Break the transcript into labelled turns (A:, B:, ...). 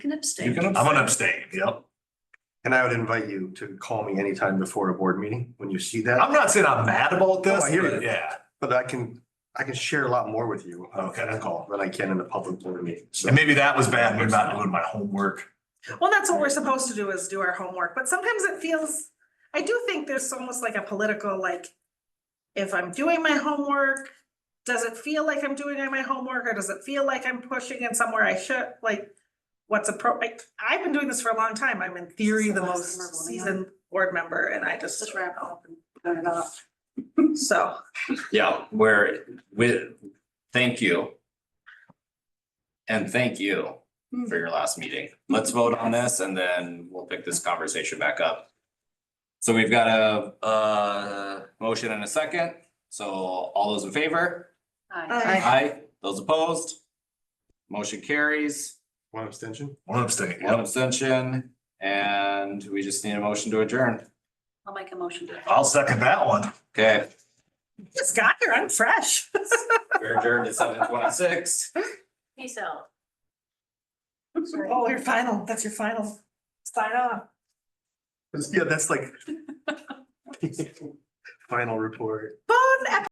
A: Can
B: You
A: abstain.
B: can,
C: I'm gonna abstain, yep.
D: And I would invite you to call me anytime before a board meeting when you see
C: I'm
D: that,
C: not saying I'm mad about this,
D: Oh, I hear you.
C: but yeah,
D: but I can, I can share a lot more with you on
C: Okay.
D: a call than I can in a public board meeting. So
C: and maybe that was bad, me not doing my homework.
E: Well, that's what we're supposed to do is do our homework, but sometimes it feels, I do think there's almost like a political, like. If I'm doing my homework, does it feel like I'm doing my homework or does it feel like I'm pushing in somewhere I should, like? What's appropriate, I've been doing this for a long time. I'm in theory the
A: The last member,
E: most
A: yeah.
E: seasoned board member and I just,
A: Just wrap it up and turn it off.
E: so.
F: Yeah, where with, thank you. And thank you for your last meeting. Let's vote on this and then we'll pick this conversation back up. So we've got a uh motion and a second. So all those in favor?
A: Aye.
E: I
F: Aye. Those opposed? Motion carries,
D: one abstention.
C: One abstain,
F: one
C: yep.
F: abstention, and we just need a motion to adjourn.
A: I'll make a motion. to-
C: I'll second that one.
F: Okay,
E: just got here, I'm fresh.
F: we're adjourned at seven twenty-six.
A: Peace out.
E: Oh, your final, that's your final sign off.
D: Yeah, that's like. Final report.
E: Bon